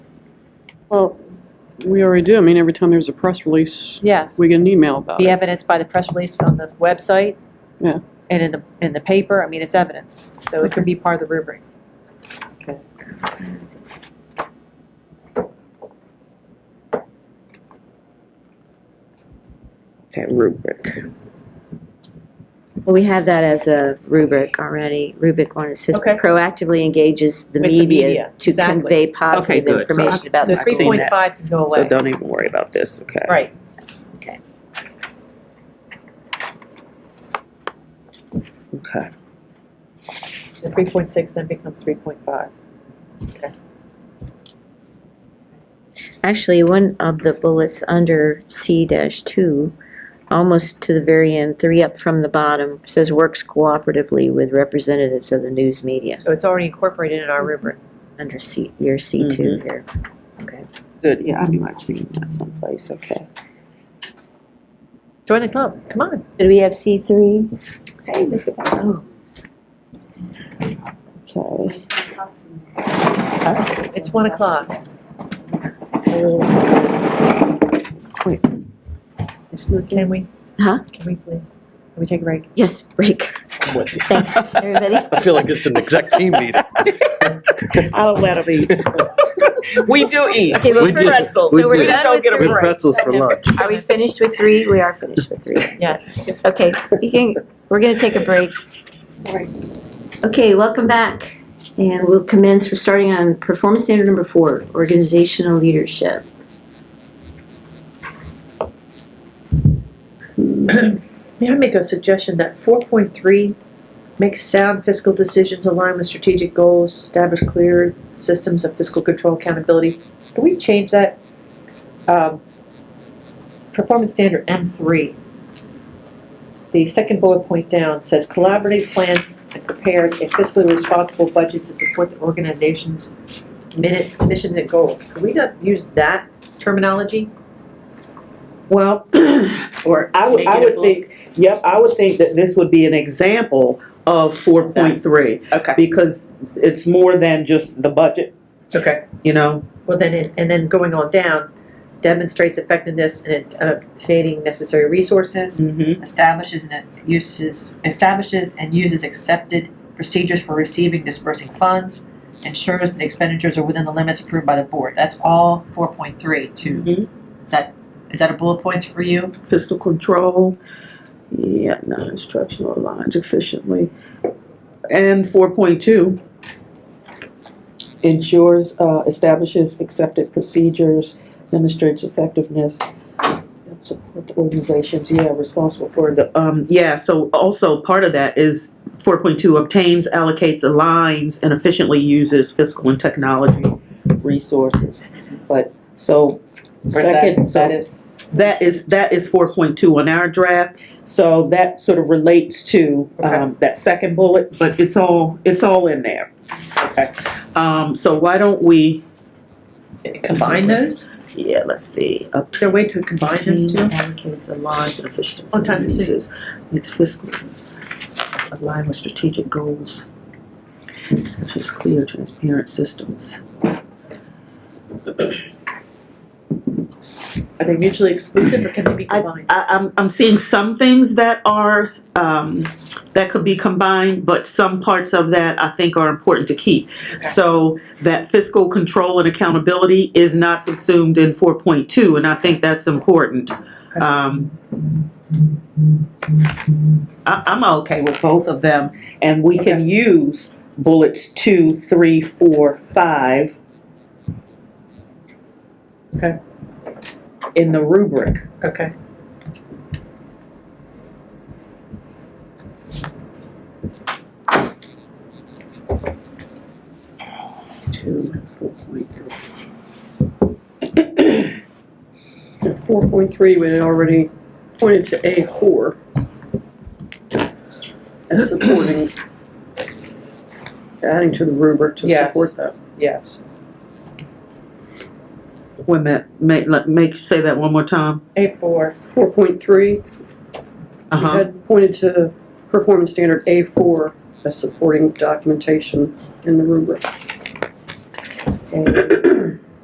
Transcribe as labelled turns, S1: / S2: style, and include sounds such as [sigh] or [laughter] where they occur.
S1: Well, we already do. I mean, every time there's a press release,
S2: Yes,
S1: we get an email about
S2: be
S1: it.
S2: evidenced by the press release on the website.
S1: Yeah.
S2: And in the, in the paper, I mean, it's evidenced, so it could be part of the rubric.
S3: Okay, rubric.
S4: Well, we have that as a rubric already, rubric one, it says
S2: Okay.
S4: proactively engages the
S2: With the
S4: media
S2: media,
S4: to
S2: exactly.
S4: convey
S3: Okay,
S4: positive
S3: good. So
S4: information
S3: I-
S4: about
S2: So
S4: the
S3: I've seen
S2: three
S4: school.
S2: point five can go
S3: So
S2: away.
S3: don't even worry about this, okay?
S2: Right,
S3: Okay.
S2: so three point six then becomes three point five.
S4: Actually, one of the bullets under C dash two, almost to the very end, three up from the bottom, says works cooperatively with representatives of the news media,
S2: So it's already incorporated in our rubric.
S4: under C, your C two here.
S3: Good, yeah, I knew I'd seen that someplace, okay.
S2: Join the club, come on.
S4: Did we have C three? Hey, Mr. Bowden.
S3: Okay.
S2: It's one o'clock.
S3: It's quick.
S2: Can we?
S4: Huh?
S2: Can we please? Can we take a break?
S4: Yes, break.
S5: I'm with you.
S4: Thanks,
S5: [laughs]
S4: everybody.
S5: I feel like it's an exact team meeting.
S3: I'll let them eat.
S5: We do eat.
S4: Okay, we're
S5: We just-
S4: pretzels.
S5: we
S4: So we're
S5: just
S4: done
S3: don't
S4: with
S3: get a
S4: three.
S3: break.
S5: pretzels for lunch.
S4: Are we finished with three? We are finished with three.
S2: Yes.
S4: Okay, you can, we're gonna take a break. Okay, welcome back. And we'll commence, we're starting on performance standard number four, organizational leadership.
S2: May I make a suggestion that four point three, make sound fiscal decisions aligned with strategic goals, establish clear systems of fiscal control accountability? Can we change that? um, Performance standard M three. The second bullet point down says collaborative plans and prepares a fiscally responsible budget to support the organization's minute, missions and goals. Can we not use that terminology?
S3: Well, [clears throat]
S2: Or
S3: I would, I
S2: make it a
S3: would
S2: bullet
S3: think, yep, I would think that this would be an example of four point three.
S2: Okay.
S3: Because it's more than just the budget,
S2: Okay.
S3: you know?
S2: Well, then, it- and then going on down, demonstrates effectiveness in obtaining necessary resources,
S3: Mm-hmm.
S2: establishes and uses, establishes and uses accepted procedures for receiving dispersing funds, ensures that expenditures are within the limits approved by the board. That's all four point three two.
S3: Mm-hmm.
S2: Is that, is that a bullet point for you?
S3: Fiscal control, yeah, non-instructional lines efficiently. And four point two. Ensures, uh, establishes accepted procedures, demonstrates effectiveness, and support the organizations, yeah, responsible for the, um, yeah, so also part of that is four point two, obtains, allocates, aligns, and efficiently uses fiscal and technology resources. But, so, second, so. That is, that is four point two on our draft, so that sort of relates to, um, that second bullet, but it's all, it's all in there. Okay. Um, so why don't we,
S2: Combine those?
S3: yeah, let's see, up
S2: Is there a way to combine those two?
S3: Allocates aligns and efficient
S2: On time to see.
S3: uses, its fiscal, align with strategic goals, such as clear, transparent systems.
S2: Are they mutually exclusive or can they be combined?
S3: I, I'm, I'm seeing some things that are, um, that could be combined, but some parts of that I think are important to keep. So that fiscal control and accountability is not subsumed in four point two, and I think that's important. Um, I, I'm okay with both of them, and we can use bullets two, three, four, five.
S2: Okay.
S3: In the rubric.
S2: Okay.
S3: two and four point three.
S1: Four point three, we had already pointed to A four. As supporting, adding to the rubric to
S2: Yes.
S1: support that.
S2: Yes.
S3: Wait a minute, make, let- make, say that one more time.
S2: A four.
S1: Four point three, we
S3: Uh-huh,
S1: had pointed to performance standard A four as supporting documentation in the rubric.
S3: Okay.